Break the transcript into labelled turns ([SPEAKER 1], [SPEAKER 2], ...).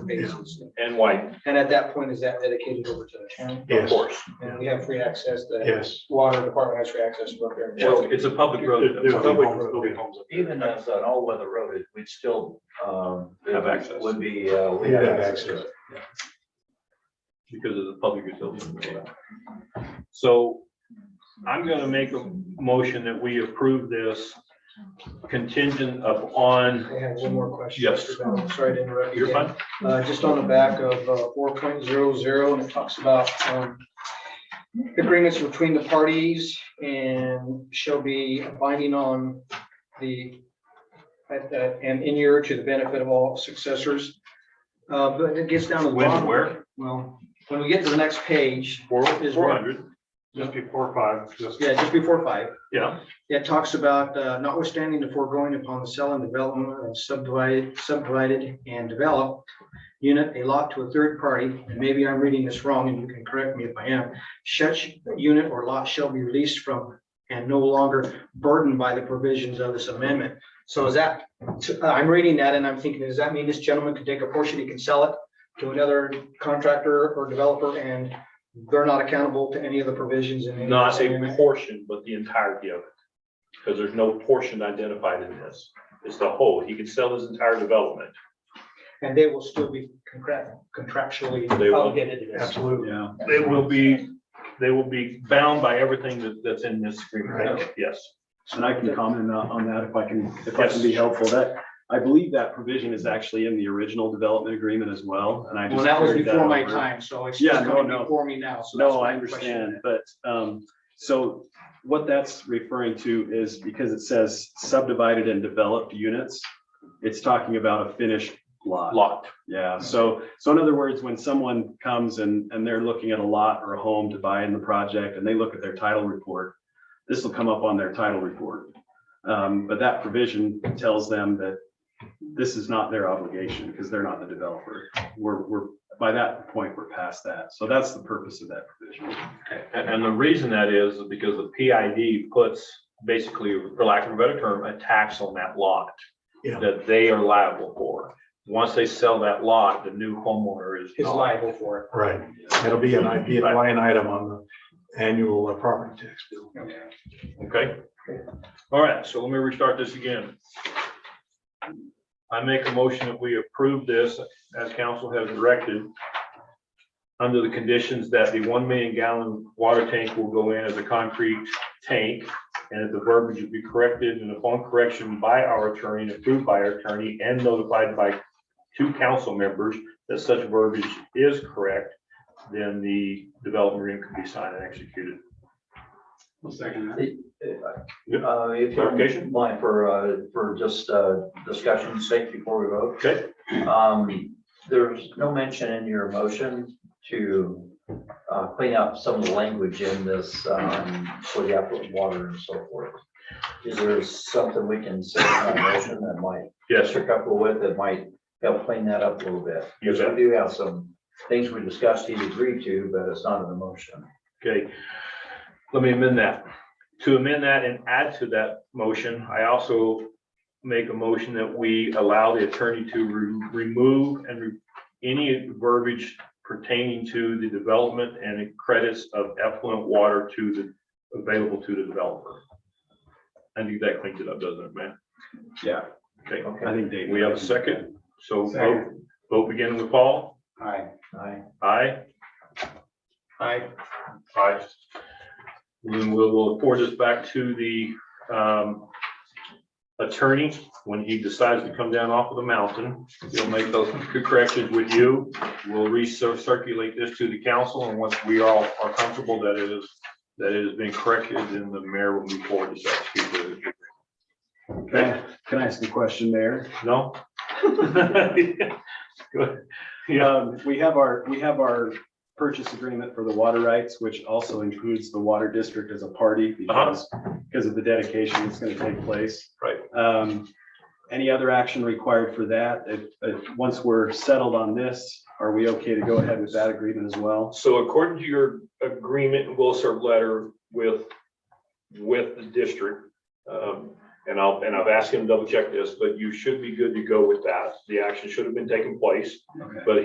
[SPEAKER 1] different bases.
[SPEAKER 2] and white,
[SPEAKER 1] And at that point, is that dedicated over to the town?
[SPEAKER 2] of
[SPEAKER 3] Yes,
[SPEAKER 2] course.
[SPEAKER 1] And we have free access, the
[SPEAKER 3] yes.
[SPEAKER 1] water department has free access to up there.
[SPEAKER 2] Well, it's a public road.
[SPEAKER 3] There- There'll be
[SPEAKER 2] Public
[SPEAKER 3] homes, there'll be
[SPEAKER 2] road.
[SPEAKER 3] homes up there.
[SPEAKER 4] Even as an all-weather road, it- we'd still, um. it
[SPEAKER 2] Have access.
[SPEAKER 4] Would be, uh, we
[SPEAKER 3] You'd
[SPEAKER 4] have
[SPEAKER 3] have
[SPEAKER 4] access.
[SPEAKER 3] access.
[SPEAKER 2] because of the public utility. So I'm gonna make a motion that we approve this contingent upon,
[SPEAKER 1] I have one more question.
[SPEAKER 2] Yes.
[SPEAKER 1] Mr. Bell. Sorry to interrupt you.
[SPEAKER 2] your
[SPEAKER 1] again.
[SPEAKER 2] fund,
[SPEAKER 1] Uh, just on the back of uh, four point zero zero, and it talks about, um, agreements between the parties and shall be binding on the, at the- and in year to the benefit of all successors. Uh, but it gets down to the
[SPEAKER 2] When and
[SPEAKER 1] bottom.
[SPEAKER 2] where?
[SPEAKER 1] Well, when we get to the next page,
[SPEAKER 2] four,
[SPEAKER 1] Is
[SPEAKER 2] four hundred,
[SPEAKER 3] Just before five, just.
[SPEAKER 1] yeah, just before five,
[SPEAKER 2] yeah,
[SPEAKER 1] it talks about uh, notwithstanding the foregoing upon the sale and development of subdivided, subdivided and developed unit, a lot to a third party, and maybe I'm reading this wrong and you can correct me if I am, such unit or lot shall be released from and no longer burdened by the provisions of this amendment. So is that, uh, I'm reading that and I'm thinking, does that mean this gentleman could take a portion, he can sell it to another contractor or developer and they're not accountable to any of the provisions in any of
[SPEAKER 2] not
[SPEAKER 1] this
[SPEAKER 2] a
[SPEAKER 1] amendment?
[SPEAKER 2] portion, but the entirety of it. Because there's no portion identified in this, it's the whole, he could sell his entire development.
[SPEAKER 1] And they will still be contract- contractually
[SPEAKER 2] They will.
[SPEAKER 1] obligated to this.
[SPEAKER 3] Absolutely.
[SPEAKER 2] Yeah. They will be, they will be bound by everything that, that's in this agreement, yes.
[SPEAKER 5] And I can comment on on that if I can, if I can be
[SPEAKER 2] Yes.
[SPEAKER 5] helpful. That, I believe that provision is actually in the original development agreement as well, and I just.
[SPEAKER 1] Well, that was
[SPEAKER 5] carried
[SPEAKER 1] before my
[SPEAKER 5] over.
[SPEAKER 1] time, so it's
[SPEAKER 5] Yeah,
[SPEAKER 1] just
[SPEAKER 5] no,
[SPEAKER 1] coming
[SPEAKER 5] no.
[SPEAKER 1] before me now, so. that's
[SPEAKER 5] No,
[SPEAKER 1] why
[SPEAKER 5] I
[SPEAKER 1] I'm questioning
[SPEAKER 5] understand,
[SPEAKER 1] it.
[SPEAKER 5] but, um, so what that's referring to is because it says subdivided and developed units, it's talking about a finished lot.
[SPEAKER 2] Lot,
[SPEAKER 5] Yeah, so, so in other words, when someone comes and, and they're looking at a lot or a home to buy in the project and they look at their title report, this will come up on their title report. Um, but that provision tells them that this is not their obligation because they're not the developer. We're, we're, by that point, we're past that. So that's the purpose of that provision.
[SPEAKER 2] and, and the reason that is because the PID puts basically, for lack of a better term, a tax on that lot.
[SPEAKER 3] Yeah.
[SPEAKER 2] That they are liable for. Once they sell that lot, the new homeowner is
[SPEAKER 1] Is
[SPEAKER 2] not.
[SPEAKER 1] liable for
[SPEAKER 3] Right. It'll be an, i- be a line item on the annual uh, property tax bill.
[SPEAKER 1] it.
[SPEAKER 2] Okay? All right, so let me restart this again. I make a motion that we approve this as council has directed under the conditions that the one million gallon water tank will go in as a concrete tank and that the verbiage will be corrected and upon correction by our attorney, and approved by our attorney and notified by two council members that such verbiage is correct, then the development agreement can be signed and executed. Yep.
[SPEAKER 4] Uh, if you
[SPEAKER 2] Clarification?
[SPEAKER 4] mind for, uh, for just, uh, discussion's sake before we vote.
[SPEAKER 2] Okay?
[SPEAKER 4] Um, there's no mention in your motion to, uh, clean up some of the language in this, um, for the effluent water and so forth. Is there something we can say in our motion that might
[SPEAKER 2] Yes,
[SPEAKER 4] Mr. Couple with that might help clean that up a little bit?
[SPEAKER 2] You
[SPEAKER 4] Because
[SPEAKER 2] bet.
[SPEAKER 4] we do have some things we discussed he'd agreed to, but it's not in the motion.
[SPEAKER 2] okay. Let me amend that. To amend that and add to that motion, I also make a motion that we allow the attorney to re- remove and re- any verbiage pertaining to the development and credits of effluent water to the, available to the developer. I think that cleans it up, doesn't it, man?
[SPEAKER 5] Yeah,
[SPEAKER 2] Okay,
[SPEAKER 5] I
[SPEAKER 4] Okay.
[SPEAKER 5] think Dave.
[SPEAKER 2] we have a second, so vote, vote beginning with Paul.
[SPEAKER 1] Aye.
[SPEAKER 4] Aye.
[SPEAKER 2] Aye.
[SPEAKER 1] Aye.
[SPEAKER 2] Aye. Then we'll, we'll forward this back to the um, attorney when he decides to come down off of the mountain. He'll make those two corrections with you. We'll recirculate this to the council and once we all are comfortable that it is, that it has been corrected, then the mayor will move forward to execute it.
[SPEAKER 5] Can I- can I ask a question there?
[SPEAKER 2] No? Good. Yeah,
[SPEAKER 5] Um, we have our, we have our purchase agreement for the water rights, which also includes the water district as a party because, because of the dedication that's gonna take place.
[SPEAKER 2] Uh-huh. Right.
[SPEAKER 5] Um, any other action required for that? If, if, once we're settled on this, are we okay to go ahead with that agreement as well?
[SPEAKER 2] so according to your agreement and will serve letter with, with the district, um, And I'll, and I've asked him to double check this, but you should be good to go with that. The action should have been taking place.
[SPEAKER 5] Okay.